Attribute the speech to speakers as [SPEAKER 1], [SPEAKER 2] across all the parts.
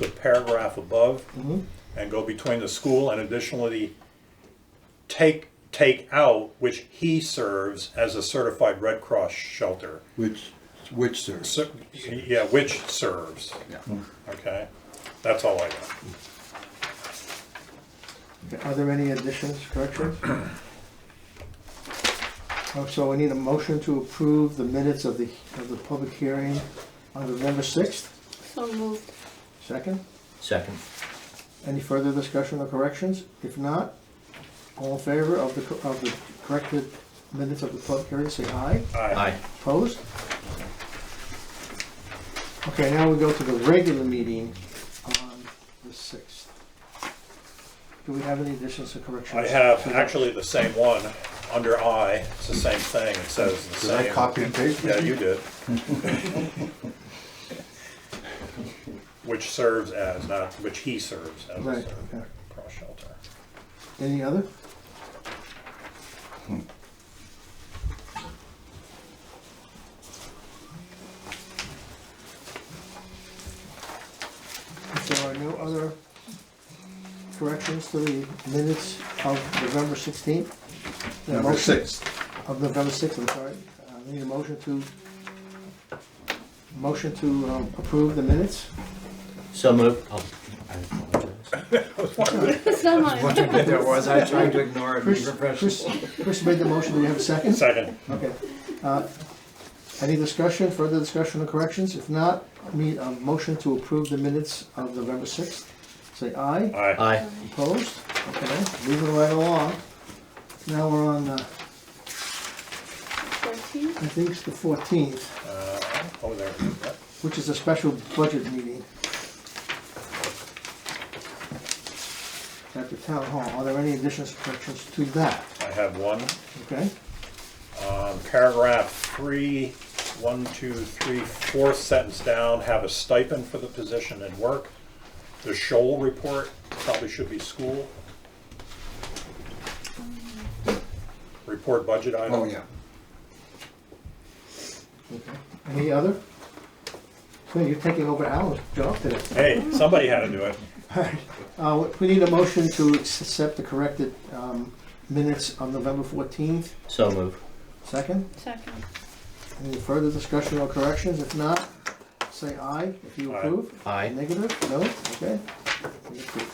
[SPEAKER 1] the paragraph above
[SPEAKER 2] Mhm.
[SPEAKER 1] and go between the school and additionally take, take out which he serves as a certified Red Cross shelter.
[SPEAKER 2] Which, which sir?
[SPEAKER 1] So, yeah, which serves, okay? That's all I got.
[SPEAKER 3] Are there any additions, corrections? Oh, So we need a motion to approve the minutes of the, of the public hearing on November 6th.
[SPEAKER 4] So moved.
[SPEAKER 3] Second,
[SPEAKER 5] Second.
[SPEAKER 3] any further discussion or corrections? If not, all in favor of the, co- of the corrected minutes of the public hearing, say aye.
[SPEAKER 5] Aye.
[SPEAKER 3] Opposed? Okay, now we go to the regular meeting on the 6th. Do we have any additions or corrections?
[SPEAKER 1] I have actually the same one, under I, it's the same thing, it says the
[SPEAKER 2] Did I
[SPEAKER 1] same.
[SPEAKER 2] copy and paste?
[SPEAKER 1] Yeah, you did. Which serves as, not, which he serves as
[SPEAKER 3] Right,
[SPEAKER 1] a
[SPEAKER 3] okay.
[SPEAKER 1] cross shelter.
[SPEAKER 3] Any other? Hmm. If there are no other corrections to the minutes of November 16th? the
[SPEAKER 2] Number
[SPEAKER 3] motion-
[SPEAKER 2] six.
[SPEAKER 3] Of November 6th, I'm sorry. Uh, I Need a motion to, motion to um, approve the minutes?
[SPEAKER 5] So moved. Oh, I apologize.
[SPEAKER 4] So moved.
[SPEAKER 6] wondering if there was. I tried to ignore it.
[SPEAKER 3] Chris, Chris, Chris made the motion, do we have a second?
[SPEAKER 1] Second,
[SPEAKER 3] Okay. Uh, Any discussion, further discussion or corrections? If not, need a motion to approve the minutes of November 6th. Say aye.
[SPEAKER 1] aye.
[SPEAKER 5] Aye.
[SPEAKER 3] Opposed? Okay, moving right along. Now we're on, uh,
[SPEAKER 4] Fourteen.
[SPEAKER 3] I think it's the 14th,
[SPEAKER 1] Uh, Oh, there, Yep.
[SPEAKER 3] which is a special budget meeting at the town hall. Are there any additions or corrections to that?
[SPEAKER 1] I have one.
[SPEAKER 3] Okay?
[SPEAKER 1] Um, Paragraph three, one, two, three, fourth sentence down, have a stipend for the position and work. The Shoal report probably should be school. Report budget item.
[SPEAKER 2] Oh, yeah.
[SPEAKER 3] Okay. Any other? So you're taking over Alan's job today.
[SPEAKER 1] Hey, somebody had to do it.
[SPEAKER 3] Uh, we need a motion to accept the corrected, um, minutes on November fourteenth.
[SPEAKER 5] So moved.
[SPEAKER 3] Second,
[SPEAKER 4] Second.
[SPEAKER 3] any further discussion or corrections? If not, say aye if you
[SPEAKER 1] Aye.
[SPEAKER 3] approve.
[SPEAKER 5] Aye.
[SPEAKER 3] Negative, no, okay. We approve.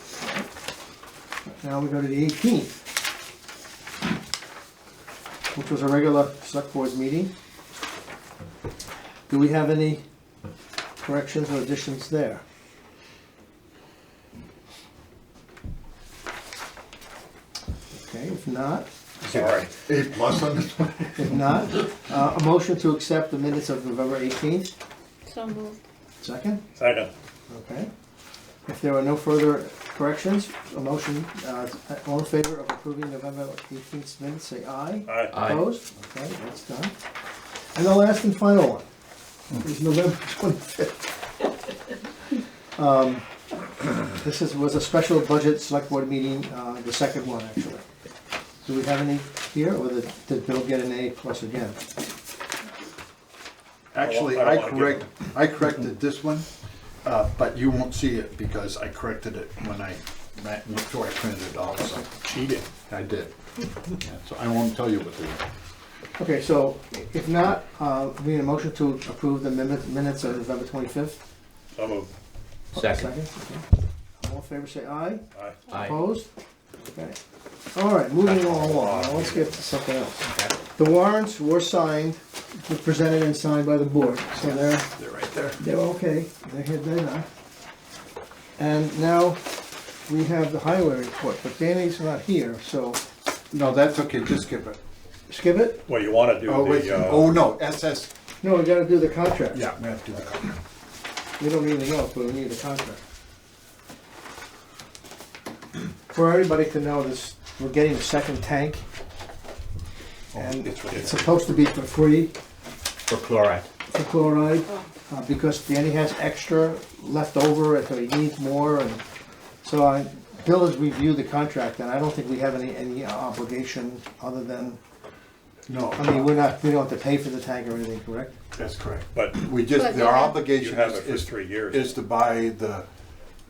[SPEAKER 3] Alright. Now we go to the eighteenth. Which was a regular select board meeting. Do we have any corrections or additions there? Okay, if not,
[SPEAKER 1] Sorry.
[SPEAKER 2] A plus on this one?
[SPEAKER 3] if not, uh, a motion to accept the minutes of November eighteenth,
[SPEAKER 4] So moved.
[SPEAKER 3] second?
[SPEAKER 1] Second.
[SPEAKER 3] Okay. If there are no further corrections, a motion, uh, all in favor of approving November 18th minutes, say aye.
[SPEAKER 2] Uh,
[SPEAKER 1] Aye.
[SPEAKER 5] Aye.
[SPEAKER 3] Opposed? Okay, that's done. And the last and final one is November 25th. Um, This is, was a special budget select board meeting, uh, the second one, actually. Do we have any here, or did- did Bill get an A plus again?
[SPEAKER 1] I
[SPEAKER 2] Actually,
[SPEAKER 1] don't
[SPEAKER 2] I
[SPEAKER 1] wanna give
[SPEAKER 2] correct, I corrected this one, uh, but you won't see it because I corrected it when I, ma- before I printed it all, so
[SPEAKER 1] Cheating.
[SPEAKER 2] I did. Yeah, So I won't tell you what they are.
[SPEAKER 3] Okay, so if not, uh, we need a motion to approve the minute- minutes of November 25th.
[SPEAKER 1] So moved.
[SPEAKER 5] Second.
[SPEAKER 3] okay. All in favor, say aye.
[SPEAKER 1] Aye.
[SPEAKER 5] Aye.
[SPEAKER 3] Opposed? Okay. All right, moving on along, now let's get to something else. The warrants were signed, were presented and signed by the board, so they're,
[SPEAKER 2] They're right there.
[SPEAKER 3] they're okay, they're here, they're not. And now, we have the highway report, but Danny's not here, so
[SPEAKER 2] No, that's okay, just skip it.
[SPEAKER 3] skip it?
[SPEAKER 1] Well, you want to do
[SPEAKER 2] Oh, wait,
[SPEAKER 1] the, uh,
[SPEAKER 2] oh, no, SS,
[SPEAKER 3] No, we gotta do the contract.
[SPEAKER 2] yeah, we have to do that.
[SPEAKER 3] We don't need anything else, but we need a contract. For everybody to know this, we're getting a second tank. And
[SPEAKER 2] Oh, it's right
[SPEAKER 3] it's supposed to be for free
[SPEAKER 5] For chloride.
[SPEAKER 3] for chloride, uh, because Danny has extra left over, if he needs more, and so I, Bill has reviewed the contract, and I don't think we have any, any obligation other than, I mean,
[SPEAKER 2] No,
[SPEAKER 3] we're not, we don't have to pay for the tank or anything, correct?
[SPEAKER 2] that's correct.
[SPEAKER 1] but
[SPEAKER 2] We just,
[SPEAKER 4] But
[SPEAKER 2] our
[SPEAKER 4] you have-
[SPEAKER 1] you
[SPEAKER 2] obligation
[SPEAKER 1] have it for
[SPEAKER 2] is,
[SPEAKER 1] three years.
[SPEAKER 2] is to buy the